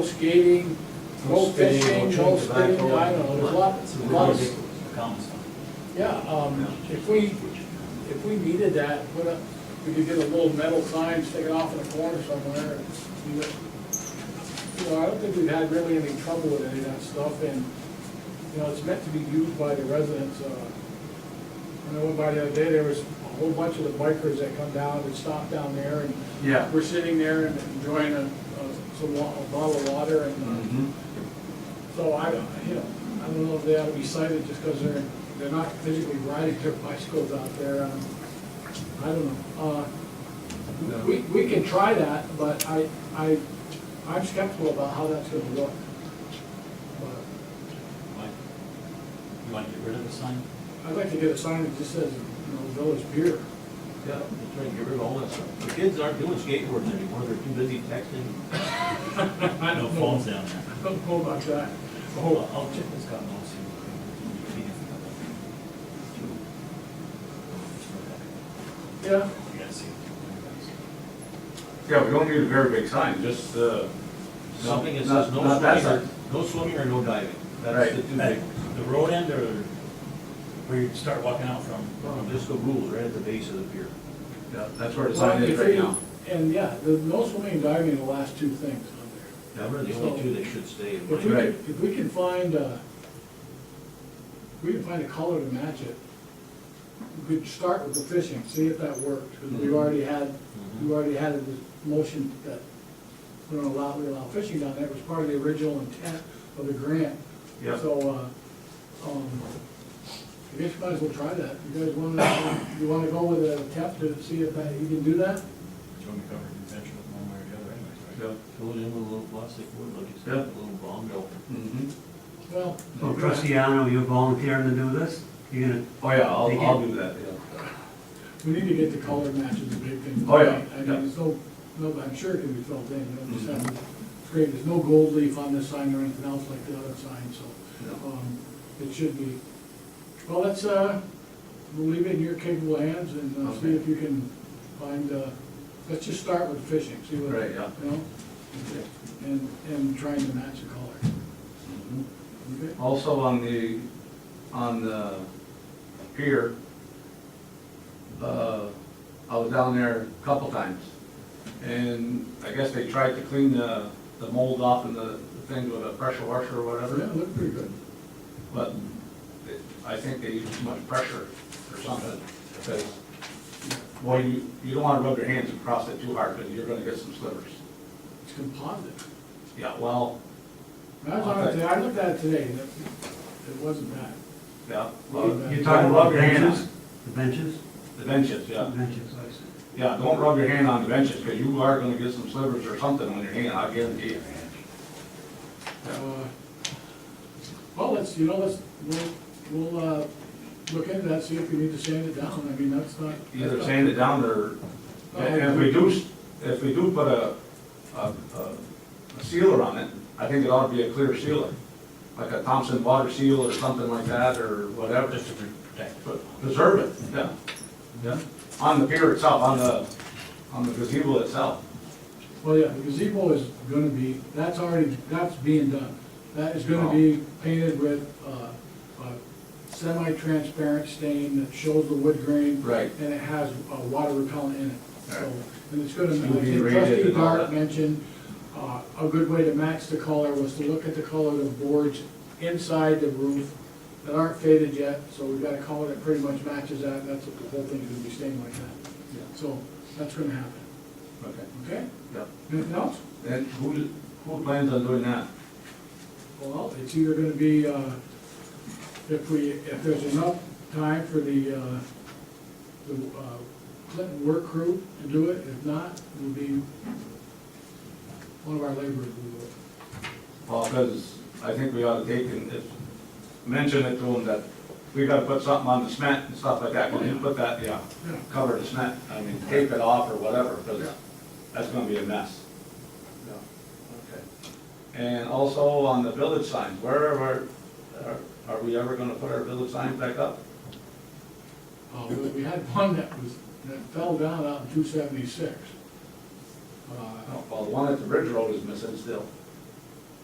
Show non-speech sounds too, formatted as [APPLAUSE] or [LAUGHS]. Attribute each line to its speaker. Speaker 1: skating,
Speaker 2: No
Speaker 1: no
Speaker 2: spitting, no
Speaker 1: fishing, no
Speaker 2: chewing
Speaker 1: spitting,
Speaker 2: tobacco.
Speaker 1: I don't know, there's lots,
Speaker 2: It's
Speaker 1: lots.
Speaker 2: ridiculous.
Speaker 3: Accounts.
Speaker 1: Yeah, um, if we, if we needed that, put up, we could get a little metal sign, stick it off in a corner somewhere. and do it. You know, I don't think we've had really any trouble with any of that stuff, and, you know, it's meant to be used by the residents. uh, I know by the other day, there was a whole bunch of the bikers that come down, that stop down there, and
Speaker 2: Yeah.
Speaker 1: we're sitting there and enjoying a, a- some, wa- a bottle of water, and uh,
Speaker 3: Mm-hmm.
Speaker 2: Mhm.
Speaker 1: so I, don't- you know, I don't know if they ought to be cited just because they're, they're not physically riding their bicycles out there. um, I don't know. Uh, We, we can try that, but I, I, I'm skeptical about how that's gonna look. But
Speaker 3: Why? You want to get rid of the sign?
Speaker 1: I'd like to get a sign that just says, you know, Village Beer. [LAUGHS]
Speaker 4: Yeah, they're trying to get rid of all that stuff. The kids aren't doing skateboards anymore, they're too busy texting.
Speaker 1: I
Speaker 3: No
Speaker 1: don't
Speaker 3: phones
Speaker 1: know,
Speaker 3: down there.
Speaker 1: I don't know about that.
Speaker 3: Hold on, I'll check this guy, and I'll see what we can do.
Speaker 1: Yeah,
Speaker 3: You gotta see. it.
Speaker 2: Yeah, we don't need a very big sign, just, uh.
Speaker 4: Something that
Speaker 2: not-
Speaker 4: says no
Speaker 2: not that
Speaker 4: swimming or,
Speaker 2: sign.
Speaker 4: no swimming or no diving.
Speaker 2: Right.
Speaker 4: That's the two
Speaker 3: Like,
Speaker 4: big ones.
Speaker 3: The road end or where you start walking out from?
Speaker 4: Um, Just the rules right at the base of the pier.
Speaker 2: Yeah, that's where the sign is
Speaker 1: If
Speaker 2: right
Speaker 1: they-
Speaker 2: now.
Speaker 1: And yeah, the, no swimming and diving are the last two things on there.
Speaker 4: Them are the only two that should stay. in
Speaker 1: If we,
Speaker 4: my-
Speaker 2: Right.
Speaker 1: could- if we can find, uh, if we can find a color to match it, we could start with the fishing, see if that worked, 'cause
Speaker 2: Mm-hmm.
Speaker 1: we already had, we already had a motion that we don't allow, we allow fishing down there, it was part of the original intent of the grant.
Speaker 2: Yeah.
Speaker 1: So, uh, um, I guess you guys will try that, you guys wanna, you wanna go with a test to see if that, you can do that?
Speaker 3: Do you want me to cover convention one way or the other anyways, right?
Speaker 2: Yeah.
Speaker 4: Fill it in with a little plastic wood, like you said,
Speaker 2: Yeah.
Speaker 4: a little bomb belt.
Speaker 2: Mhm.
Speaker 1: Well.
Speaker 5: So Cristiano, you're volunteering to do this? You're gonna,
Speaker 2: Oh, yeah, I'll, I'll do that, yeah.
Speaker 1: We need to get the color matches, the big thing.
Speaker 2: Oh, yeah,
Speaker 1: I mean,
Speaker 2: yeah.
Speaker 1: there's no, no, I'm sure it can be filled in, you know, just have, it's great, there's no gold leaf on this sign or anything else like the other sign, so,
Speaker 2: No.
Speaker 1: um, it should be. Well, let's, uh, we'll leave it in your capable hands and uh, see
Speaker 2: Okay.
Speaker 1: if you can find, uh, let's just start with fishing, see what,
Speaker 2: Right,
Speaker 1: you
Speaker 2: yeah.
Speaker 1: know? And, and trying to match the color.
Speaker 2: Mhm.
Speaker 1: Okay?
Speaker 2: Also on the, on the pier, uh, I was down there a couple times. And I guess they tried to clean the, the mold off and the the things with a pressure washer or
Speaker 1: Yeah,
Speaker 2: whatever.
Speaker 1: it looked pretty good.
Speaker 2: But it- I think they use too much pressure or something, because, well, you, you don't wanna rub your hands across it too hard, because you're gonna get some slivers.
Speaker 1: It's composite.
Speaker 2: Yeah, well,
Speaker 1: I was on it today, I looked at it today, and it, it wasn't bad.
Speaker 2: yeah.
Speaker 1: Well,
Speaker 5: you're talking about benches?
Speaker 2: on
Speaker 5: The benches?
Speaker 2: The benches, yeah.
Speaker 5: Benches, I see.
Speaker 2: Yeah, don't rub your hand on the benches, because you are gonna get some slivers or something on your hand, I guarantee you.
Speaker 1: Uh, Well, let's, you know, let's, we'll, we'll, uh, look into that, see if we need to sand it down, I mean, that's not.
Speaker 2: Either
Speaker 1: that's not-
Speaker 2: sand it down or, and if we do, s- if we do put a, a, a- a sealer on it, I think it ought to be a clear sealer. Like a Thompson water seal or something like that, or whatever.
Speaker 3: Just to protect.
Speaker 2: But preserve it, yeah. Yeah. On the pier itself, on the, on the gazebo itself.
Speaker 1: Well, yeah, the gazebo is gonna be, that's already, that's being done. That is gonna be painted with, uh, a semi-transparent stain that shows the wood grain.
Speaker 2: Right.
Speaker 1: And it has, uh, water repellent in it, so,
Speaker 2: Right.
Speaker 1: and it's gonna, I
Speaker 2: It'll be
Speaker 1: think
Speaker 2: rated
Speaker 1: trustee
Speaker 2: and all
Speaker 1: Dart
Speaker 2: that.
Speaker 1: mentioned, uh, a good way to match the color was to look at the color of the boards inside the roof that aren't faded yet, so we've got a color that pretty much matches that, that's what the whole thing is gonna be stained like
Speaker 2: Yeah.
Speaker 1: that. So, that's gonna happen,
Speaker 2: Okay.
Speaker 1: okay?
Speaker 2: Yep.
Speaker 1: Anything else?
Speaker 2: And who, who plans on doing that?
Speaker 1: Well, it's either gonna be, uh, if we, if there's enough time for the, uh, the uh, Clinton work crew to do it, if not, it'll be one of our laborers will do it.
Speaker 2: Well, because I think we ought to take and just mention it to them that we gotta put something on the cement and stuff like that. Can you put that, yeah,
Speaker 1: Yeah.
Speaker 2: cover the cement, I mean, tape it off or whatever, because that's gonna be a mess. Yeah. Okay. And also on the village signs, where are, are, are we ever gonna put our village signs back up?
Speaker 1: Uh, we- we had one that was, that fell down out in two seventy-six. Uh,
Speaker 2: Well, the one at the Ridge Road is missing still.